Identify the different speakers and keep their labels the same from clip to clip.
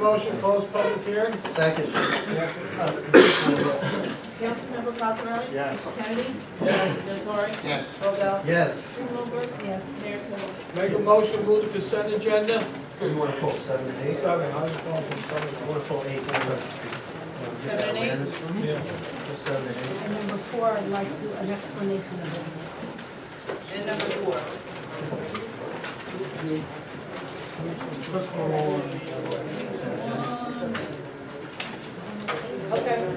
Speaker 1: motion, close public hearing?
Speaker 2: Second.
Speaker 3: Councilmember Cosarelli?
Speaker 2: Yes.
Speaker 3: Kennedy? Yes. Natori?
Speaker 2: Yes.
Speaker 3: Robel?
Speaker 2: Yes.
Speaker 3: Strumelberg? Yes. Mayor Kibble?
Speaker 1: Make a motion, move the consent agenda?
Speaker 2: You want to pull seven and eight?
Speaker 1: Seven, I just want to confirm.
Speaker 2: You want to pull eight?
Speaker 3: Seven and eight?
Speaker 1: Yeah.
Speaker 2: Pull seven and eight.
Speaker 4: And number four, I'd like to, an explanation of it.
Speaker 3: And number four. Okay.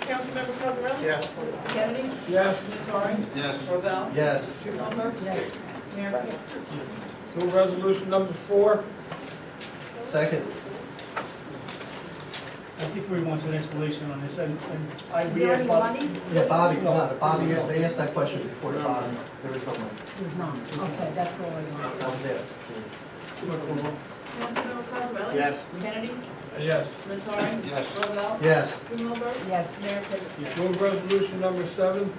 Speaker 3: Councilmember Cosarelli?
Speaker 2: Yes.
Speaker 3: Kennedy?
Speaker 1: Yes,
Speaker 3: Natori?
Speaker 2: Yes.
Speaker 3: Robel?
Speaker 2: Yes.
Speaker 3: Strumelberg?
Speaker 4: Yes.
Speaker 3: Mayor Kibble?
Speaker 1: move resolution number four?
Speaker 2: Second.
Speaker 5: I think we want an explanation on this, and and I,
Speaker 4: Is
Speaker 5: we
Speaker 4: there any
Speaker 5: asked Bob,
Speaker 4: monies?
Speaker 2: Yeah, Bobby, come on, Bobby, they asked that question before, Bobby, there is no money.
Speaker 4: There's not. Okay, that's all I want.
Speaker 2: That was it.
Speaker 3: Councilmember Cosarelli?
Speaker 2: Yes.
Speaker 3: Kennedy?
Speaker 1: Yes.
Speaker 3: Natori?
Speaker 2: Yes.
Speaker 3: Robel?
Speaker 2: Yes.
Speaker 3: Strumelberg?
Speaker 4: Yes.
Speaker 3: Mayor Kibble?
Speaker 1: Move resolution number seven?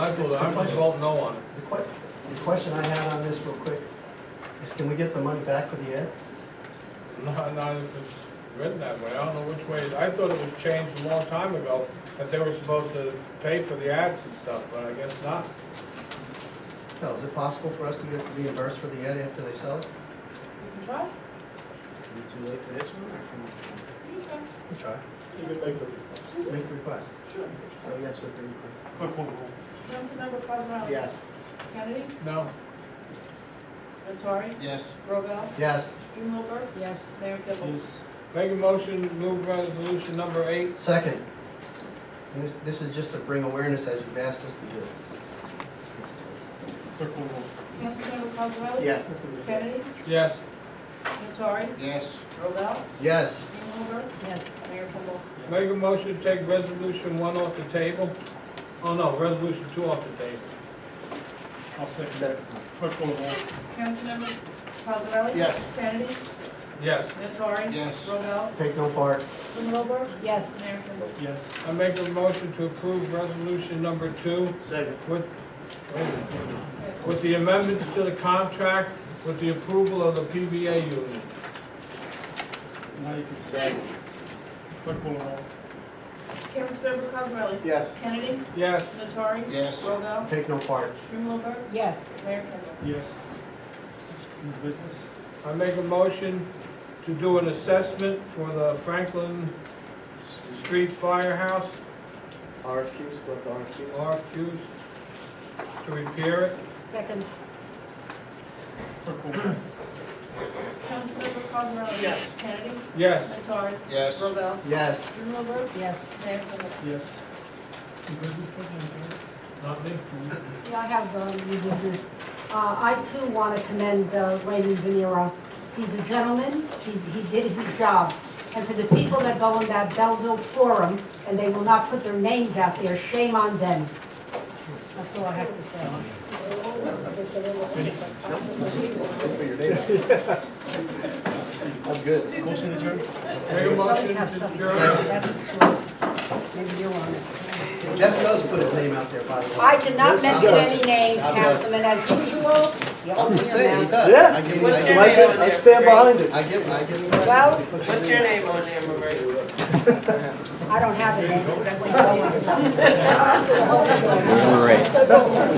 Speaker 1: I vote, I might vote no on it.
Speaker 2: The que- the question I had on this real quick is can we get the money back for the ed?
Speaker 1: No, no, it's it's written that way, I don't know which way, it- I thought it was changed a long time ago, that they were supposed to pay for the ads and stuff, but I guess not.
Speaker 2: No, is it possible for us to get reimbursed for the ed after they sell it?
Speaker 3: You can try.
Speaker 2: Is it too late for this one? I
Speaker 3: You can
Speaker 2: can. We try.
Speaker 1: You can make the.
Speaker 2: Make the request.
Speaker 3: Sure.
Speaker 2: So yes with the request.
Speaker 5: quick call roll.
Speaker 3: Councilmember Cosarelli? Kennedy?
Speaker 1: No.
Speaker 3: Natori?
Speaker 2: Yes.
Speaker 3: Robel?
Speaker 2: Yes.
Speaker 3: Strumelberg?
Speaker 4: Yes.
Speaker 3: Mayor Kibble?
Speaker 5: Yes,
Speaker 1: Make a motion, move resolution number eight?
Speaker 2: Second, and this- this is just to bring awareness as you've asked us to do.
Speaker 5: quick call roll.
Speaker 3: Councilmember Cosarelli? Kennedy?
Speaker 1: Yes.
Speaker 3: Natori?
Speaker 2: Yes.
Speaker 3: Robel?
Speaker 2: Yes.
Speaker 3: Strumelberg?
Speaker 4: Yes.
Speaker 3: Mayor Kibble?
Speaker 1: Make a motion to take resolution one off the table? Oh, no, resolution two off the table.
Speaker 5: I'll second that. Quick call roll.
Speaker 3: Councilmember Cosarelli?
Speaker 2: Yes.
Speaker 3: Kennedy?
Speaker 1: Yes.
Speaker 3: Natori?
Speaker 2: Yes.
Speaker 3: Robel?
Speaker 2: Take no part.
Speaker 3: Strumelberg?
Speaker 4: Yes.
Speaker 3: Mayor Kibble?
Speaker 5: Yes,
Speaker 1: I make a motion to approve resolution number two
Speaker 2: Second.
Speaker 1: with, with the amendments to the contract with the approval of the PBA union.
Speaker 5: now you can say. Quick call roll.
Speaker 3: Councilmember Cosarelli?
Speaker 2: Yes.
Speaker 3: Kennedy?
Speaker 1: Yes.
Speaker 3: Natori?
Speaker 2: Yes.
Speaker 3: Robel?
Speaker 2: Take no part.
Speaker 3: Strumelberg?
Speaker 4: Yes.
Speaker 3: Mayor Kibble?
Speaker 5: Yes. New business?
Speaker 1: I make a motion to do an assessment for the Franklin Street Firehouse,
Speaker 2: RFQs, what RFQs?
Speaker 1: RFQs, to repair it.
Speaker 4: Second.
Speaker 5: Quick call roll.
Speaker 3: Councilmember Cosarelli?
Speaker 2: Yes.
Speaker 3: Kennedy?
Speaker 1: Yes.
Speaker 3: Natori?
Speaker 2: Yes.
Speaker 3: Robel?
Speaker 2: Yes.
Speaker 3: Strumelberg?
Speaker 4: Yes.
Speaker 3: Mayor Kibble?
Speaker 5: Yes. New business, Captain?
Speaker 1: Nothing?
Speaker 4: Yeah, I have uh, new business. Uh, I too want to commend uh, Raymond Venera. He's a gentleman, he, he did his job. And for the people that go on that Belleville forum, and they will not put their names out there, shame on them. That's all I have to say.
Speaker 2: Look for your neighbors. I'm good.
Speaker 5: Motion adjourned?
Speaker 1: Make a
Speaker 4: Always
Speaker 1: motion
Speaker 4: have
Speaker 1: to
Speaker 4: something,
Speaker 1: adjourn.
Speaker 4: that's for sure. Maybe you're on it.
Speaker 2: Jeff does put his name out there, by the way.
Speaker 4: I did not mention
Speaker 2: Yes.
Speaker 4: any names,
Speaker 2: God bless.
Speaker 4: Councilman, as usual. you
Speaker 2: I'm
Speaker 4: open
Speaker 2: just
Speaker 4: your
Speaker 2: saying, he
Speaker 4: mouth.
Speaker 2: does.
Speaker 6: Yeah.
Speaker 2: I give him, I
Speaker 6: What's
Speaker 2: give him,
Speaker 6: your name on there?
Speaker 2: I
Speaker 6: I stand behind it.
Speaker 2: give him, I give him. credit.
Speaker 4: Well-
Speaker 2: He puts his
Speaker 6: What's
Speaker 2: name
Speaker 6: your
Speaker 2: out.
Speaker 6: name on there, Roberta?
Speaker 4: I don't have a name, because I went all over the- all over the-